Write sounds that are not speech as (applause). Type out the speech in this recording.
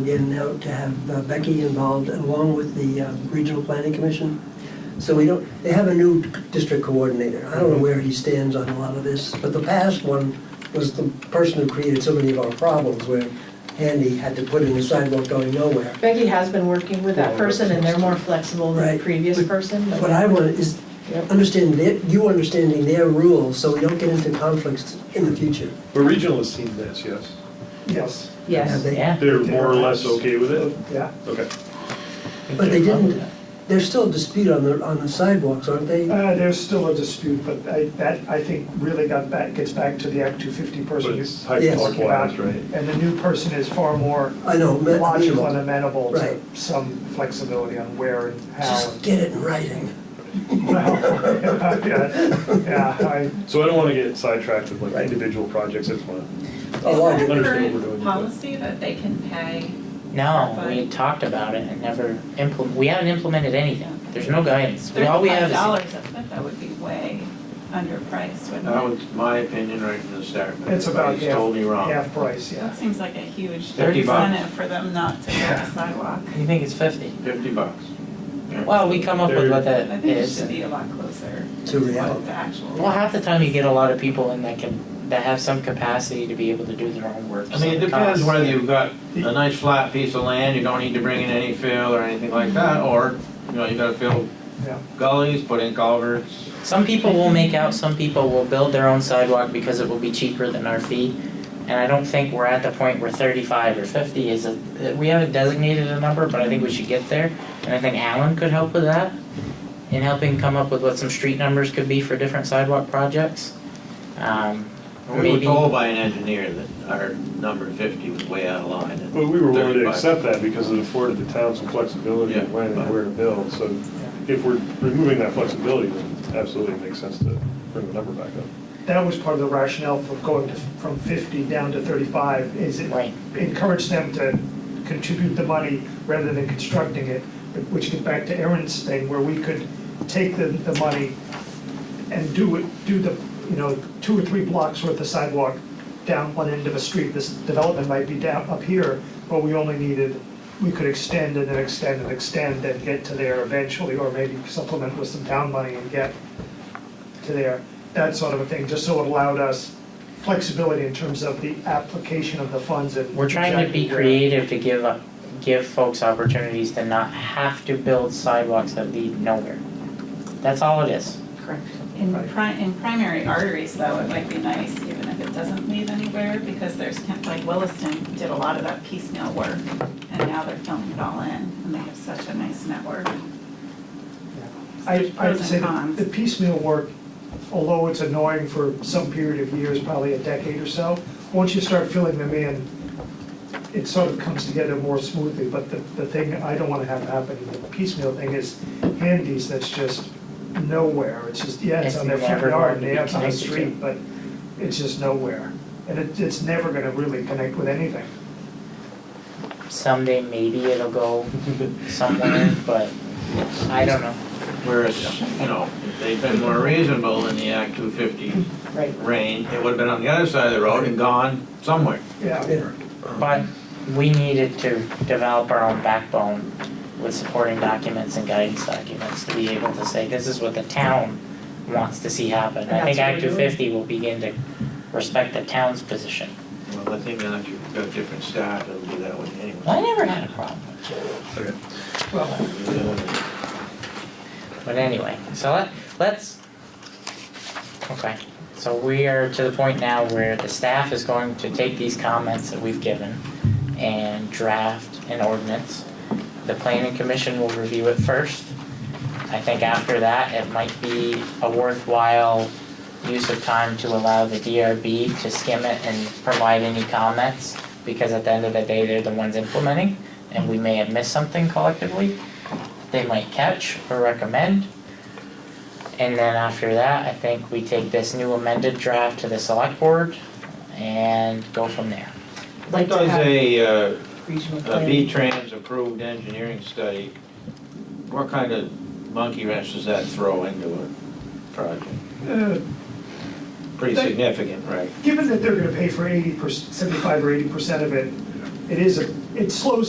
Again, now to have uh, Becky involved along with the uh, Regional Planning Commission. So we don't, they have a new district coordinator. I don't know where he stands on a lot of this, but the past one was the person who created so many of our problems where Andy had to put in a sidewalk going nowhere. Becky has been working with that person, and they're more flexible than Right. the previous person. but- What I want is Yep. understand their, you understanding their rules so we don't get into conflicts in the future. The regional has seen this, yes. Yes. Have Yes, they- Yeah. They're more or less okay with it? Yeah. Okay. But they didn't, there's still a dispute on the, on the sidewalks, aren't they? Uh, there's still a dispute, but I, that, I think, really got back, gets back to the Act two fifty But person. it's high Yes. talk wise, right? And the new person is far more I know, ma- logical and amenable. amenable to Right. some flexibility on where and how. Just and- get it in writing. (laughs) (laughs) Well, Yeah, yeah, I, So I don't want to get sidetracked with like Right. individual projects, I just want to. Oh, I Is do. that a Understand what we're doing, current but- policy that they can pay? No, we talked about it and never implement, we haven't implemented anything. There's no guidance. We- All we have Thirty-five is. dollars a foot, that would be way underpriced, wouldn't That it? was my opinion right from the start. but it's about everybody's told me half, wrong. half price, yeah. That seems like a huge 30 bucks. incentive for them not to build a sidewalk. You think it's fifty? Fifty bucks. Yeah. Well, we come up with what I that think it is. should be a lot closer To to reality. what the actual. Well, half the time you get a lot of people in that can, that have some capacity to be able to do their own work. I mean, it so depends costs- whether you've got a nice flat piece of land, you don't need to bring in any fill or anything like that, or, you know, you gotta fill Mm-hmm. Yeah. gullies, put in culverts. Some people will make out, some people will build their own sidewalk because it will be cheaper than our fee. And I don't think we're at the point where thirty-five or fifty is a, we haven't designated a number, but I think we should get there. And I think Alan could help with that, in helping come up with what some street numbers could be for different sidewalk projects. Um, or We were maybe, told by an engineer that our number fifty was way out of line. and But we were willing to 35 accept that because it afforded the town some flexibility in Yeah. when and where to build. So if we're removing that flexibility, then absolutely it makes sense to bring the number back up. That was part of the rationale for going to- from fifty down to thirty-five, is it Right. encouraged them to contribute the money rather than constructing it, which get back to Aaron's thing, where we could take the, the money and do it, do the, you know, two or three blocks worth of sidewalk down one end of a street. This development might be down up here, but we only needed, we could extend and then extend and extend and get to there eventually, or maybe supplement with some town money and get to there, that sort of a thing, just so it allowed us flexibility in terms of the application of the funds and. we're trying to be creative to give, up- give folks opportunities to not have to build sidewalks that lead nowhere. That's all it is. Correct. In pri, in primary arteries though, it might be nice even if it doesn't lead anywhere because there's, kind- like Williston did a lot of that piecemeal work and now they're filling it all in and they have such a nice network. I, I'd Pros and say cons. the piecemeal work, although it's annoying for some period of years, probably a decade or so, once you start filling them in, it sort of comes together more smoothly, but the, the thing I don't wanna have happen, the piecemeal thing is handies that's just nowhere, it's just, yeah, it's It's on their front never yard, going to and yeah, be it's on the connected to. street, but it's just nowhere. And it, it's never gonna really connect with anything. someday maybe it'll go somewhere, but I don't know. Whereas, you know, if they'd been more reasonable in the Act two fifty Right. range, it would've been on the other side of the road and gone somewhere. Yeah, Yeah. But we needed to develop our own backbone with supporting documents and guidance documents to be able to say, this is what the town wants to see happen. I That's think Act two what we're doing. fifty will begin to respect the town's position. Well, I think now that you've got different staff, it'll be that way anyway. I never had a problem with well, it, but anyway, so let, let's. Okay, so we are to the point now where the staff is going to take these comments that we've given and draft an ordinance. The planning commission will review it first. I think after that, it might be a worthwhile use of time to allow the DRB to skim it and provide any comments, because at the end of the day, they're the ones implementing, and we may have missed something collectively they might catch or recommend. And then after that, I think we take this new amended draft to the select board and go from there. like What to does have a, uh, regional a planning. V-Trans approved engineering study, what kind of monkey wrench does that throw into a project? uh, Pretty significant, right? given that they're gonna pay for eighty percent, seventy-five or eighty percent of it, it is, a it slows